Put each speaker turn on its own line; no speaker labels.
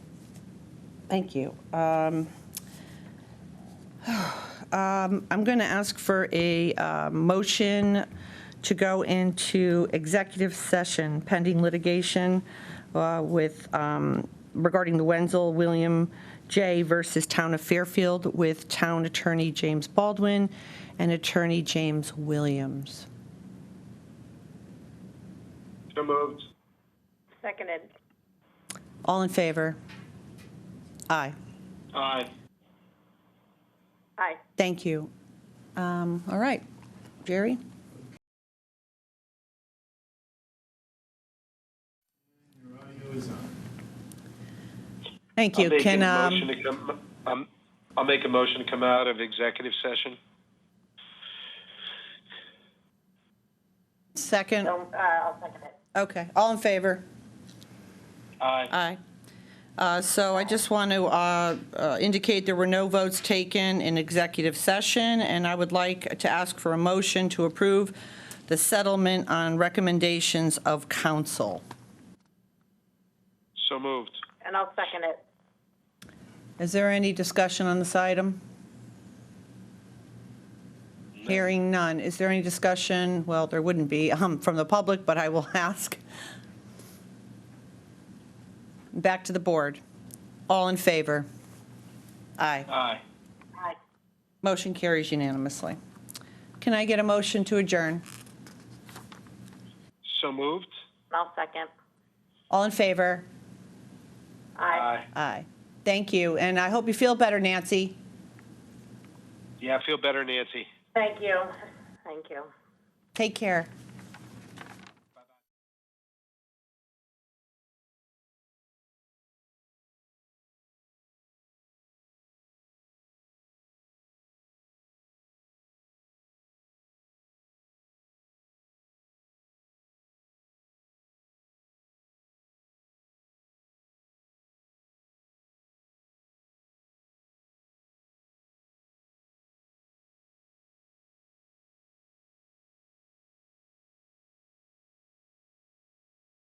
Thank you. Um, um, I'm going to ask for a uh, motion to go into executive session pending litigation uh, with, um, regarding the Wenzel William J. versus Town of Fairfield with Town Attorney James Baldwin and Attorney James Williams.
So moved.
Seconded.
All in favor? Aye.
Aye.
Aye.
Thank you. Um, All right. Jerry? Thank
I'll
you.
make
Can,
a
um,
motion to come- um, I'll make a motion to come out of executive session.
second,
So, uh, I'll second it.
okay, all in favor?
Aye.
Aye. Uh, So I just want to uh, uh, indicate there were no votes taken in executive session, and I would like to ask for a motion to approve the settlement on recommendations of counsel.
So moved.
And I'll second it.
Is there any discussion on this item? Hearing none. Is there any discussion? Well, there wouldn't be um, from the public, but I will ask. Back to the board. All in favor? Aye.
Aye.
Aye.
Motion carries unanimously. Can I get a motion to adjourn?
So moved.
And I'll second.
All in favor?
Aye.
Aye. Thank you, and I hope you feel better, Nancy.
Yeah, I feel better, Nancy.
Thank you. Thank you.
Take care.